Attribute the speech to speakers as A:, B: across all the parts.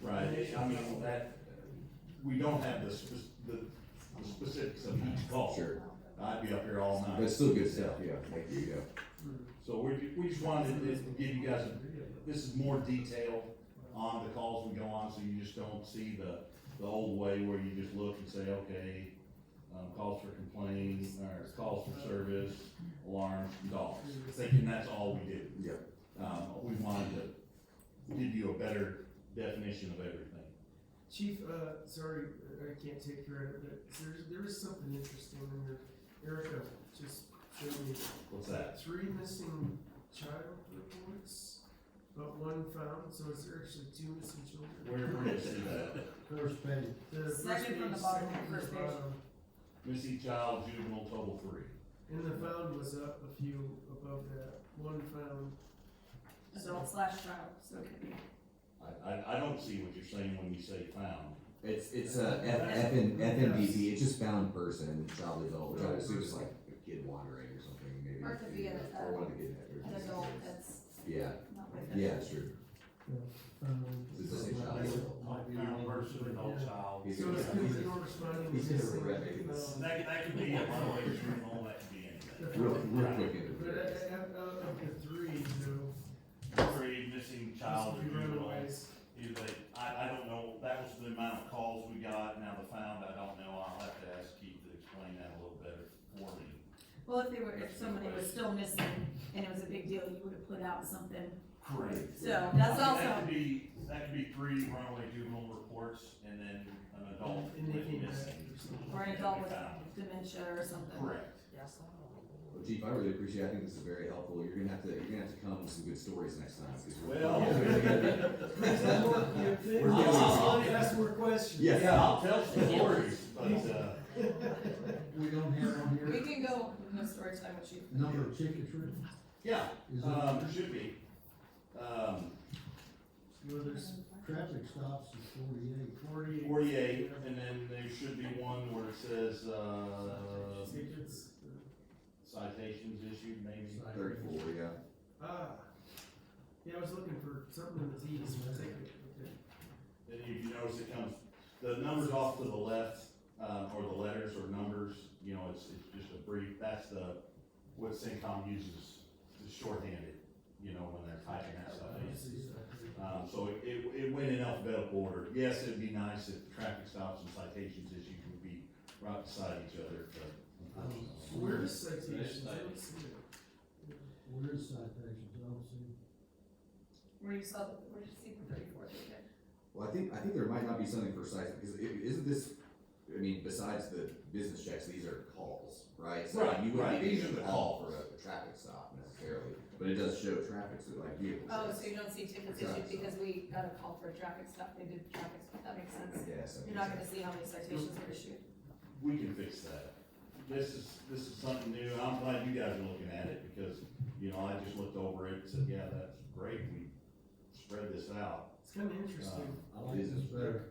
A: Right, I mean, that, we don't have the spec, the, the specifics of each call.
B: Sure,
A: I'd be up here all
B: but
A: night.
B: it's still good stuff, yeah, thank you, yeah.
A: So we, we just wanted to to give you guys, a- this is more detail on the calls we go on, so you just don't see the, the old way where you just look and say, okay, um, calls for complaint, or calls for service, alarms, dogs, thinking that's all we do.
B: Yeah.
A: Um, we wanted to give you a better definition of everything.
C: Chief, uh, sorry, I can't take credit, but there's, there is something interesting in here. Erica just showed me.
A: What's that?
C: Three missing child reports, but one found, so it's actually two missing children.
A: Where, where is that?
D: First page,
C: The first
E: Second from the
C: page,
E: bottom,
C: second from
E: first
C: the
E: page.
C: bottom.
A: Missy child juvenile total three.
C: And the found was up a few above that, one found.
E: adult slash child, so it could be.
A: I, I, I don't see what you're saying when you say found.
B: It's, it's a F, F and, FMVP, it's just found person, child adult, which I would assume is like a kid wandering or something, maybe.
E: Or it could be an, uh,
B: Or one of the kid.
E: An adult that's
B: Yeah,
E: not with
B: yeah, it's true,
D: um.
B: Is this a child?
D: Might be on first or not.
F: child.
B: He's
C: So
B: gonna-
C: it's because they were responding.
B: he's
C: to
B: gonna
C: missing
B: regret making this.
C: found.
F: That, could- that could be a runaway juvenile, that could be anything.
B: real, real quick
C: But
B: interview.
C: I- I- I- out of the three, you know,
F: Three missing child or
C: just the
F: juvenile.
C: runaways.
A: Either they, I, I don't know, that was the amount of calls we got, now the found, I don't know, I'll have to ask Keith to explain that a little better for me.
E: Well, if they were, if somebody was still missing and it was a big deal, you would have put out something.
A: Correct.
E: So that's
A: That
E: also,
A: could be, that could be three runaway juvenile reports and then an adult
C: And they
A: with
C: came back
A: missing.
C: or something.
E: or an adult with
A: Found.
E: dementia or something.
A: Correct.
B: Well, Chief, I really appreciate, it. I think this is very helpful, you're gonna have to, you're gonna have to come with some good stories next time, because we're.
A: Well-
C: That's more- yeah, they-
B: We're
A: doing-
C: Somebody asked more questions.
B: Yeah.
A: Yeah, I'll tell some stories, but, uh,
D: We don't have on
E: We
D: here,
E: can go, no story time with you.
D: number of tickets written,
A: yeah,
D: is
A: um,
D: it,
A: there should be. Um,
C: Well, there's
D: traffic stops is forty-eight.
C: forty.
A: forty-eight, and then there should be one where it says, uh,
C: Tickets.
A: citations issued, maybe.
B: Thirty-four, yeah.
C: Ah, yeah, I was looking for something in the Z's, but I think, okay.
A: Then if you notice it comes, the numbers off to the left, uh, or the letters or numbers, you know, it's, it's just a brief, that's the, what CENTCOM uses, is shorthanded, you know, when they're typing that stuff in. Um, so it, it, it went in alphabetical order. Yes, it'd be nice if traffic stops and citations issued would be right beside each other, but unfortunately.
C: Where is citations? I don't see it.
D: Where is citations, I don't see.
E: Where you saw, the where did you see the thirty-four ticket?
B: Well, I think, I think there might not be something precise, because it, isn't this, I mean, besides the business checks, these are calls, right? So
A: Right,
B: you
A: right,
B: wouldn't
A: these
B: be
A: are
B: a
A: the
B: call for a traffic stop necessarily, but it does show traffic, so like vehicle
E: Oh,
B: checks.
E: so you don't see tickets
B: Right.
E: issued because we got a call for a traffic stop, they did traffic stop, that makes
B: I
E: sense.
B: guess, I
E: You're
B: guess.
E: not gonna see how many citations were issued.
A: We can fix that. This is, this is something new, and I'm glad you guys are looking at it, because, you know, I just looked over it and said, yeah, that's great, we spread this out.
C: It's kinda interesting.
D: I like this better.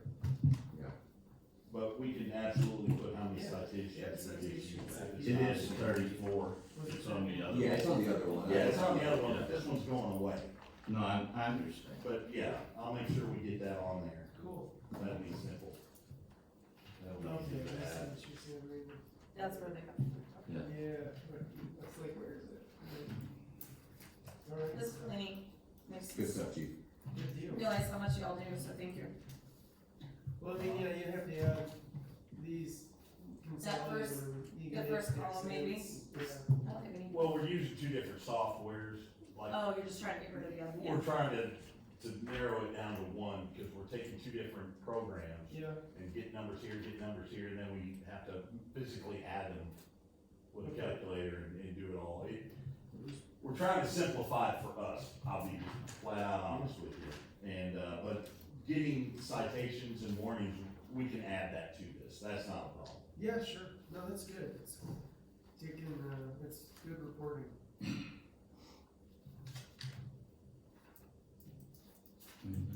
A: But we can absolutely put how many
C: Yeah,
A: citations
C: yeah,
A: we issued.
C: citations.
A: It is thirty-four.
C: What is
F: It's
C: that?
F: on the other.
B: Yeah, it's on the other one.
A: Yeah, it's on the other one, but this one's going away.
F: No, I, I understand.
A: But yeah, I'll make sure we get that on there.
C: Cool.
A: That'd be simple. That would be simple.
C: Okay, I see what you're saying, right?
E: That's where they come from.
F: Yeah.
C: Yeah, but that's like, where is it? Alright,
E: This clinic makes
B: Good
E: me
B: stuff, chief.
C: good deal.
E: realize how much y'all do, so thank you.
C: Well, then, yeah, you have the, uh, these
E: That
C: consolidated.
E: first-
C: you
E: the
C: get
E: first
C: the
E: column, maybe?
C: exhibits. Yeah.
E: I don't have any,
A: Well, we're using two different softwares, like,
E: oh, you're just trying to get rid of the other, yeah.
A: we're trying to, to narrow it down to one, because we're taking two different programs
C: Yeah,
A: and get numbers here, get numbers here, and then we have to physically add them with a calculator and, and do it all. It, we're trying to simplify it for us, I'll be flat out honest with you. And, uh, but getting citations and warnings, we can add that to this, that's not a problem.
C: yeah, sure, no, that's good, it's taking, uh, it's good reporting.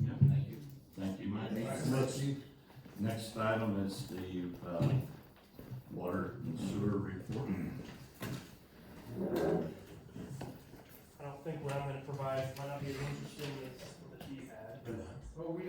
F: Yeah, thank you. Thank you, Mike.
B: Thanks.
F: Next, next item is the, uh, water and sewer report.
G: I don't think what I'm gonna provide might not be as interesting as what the chief had.
C: Oh, we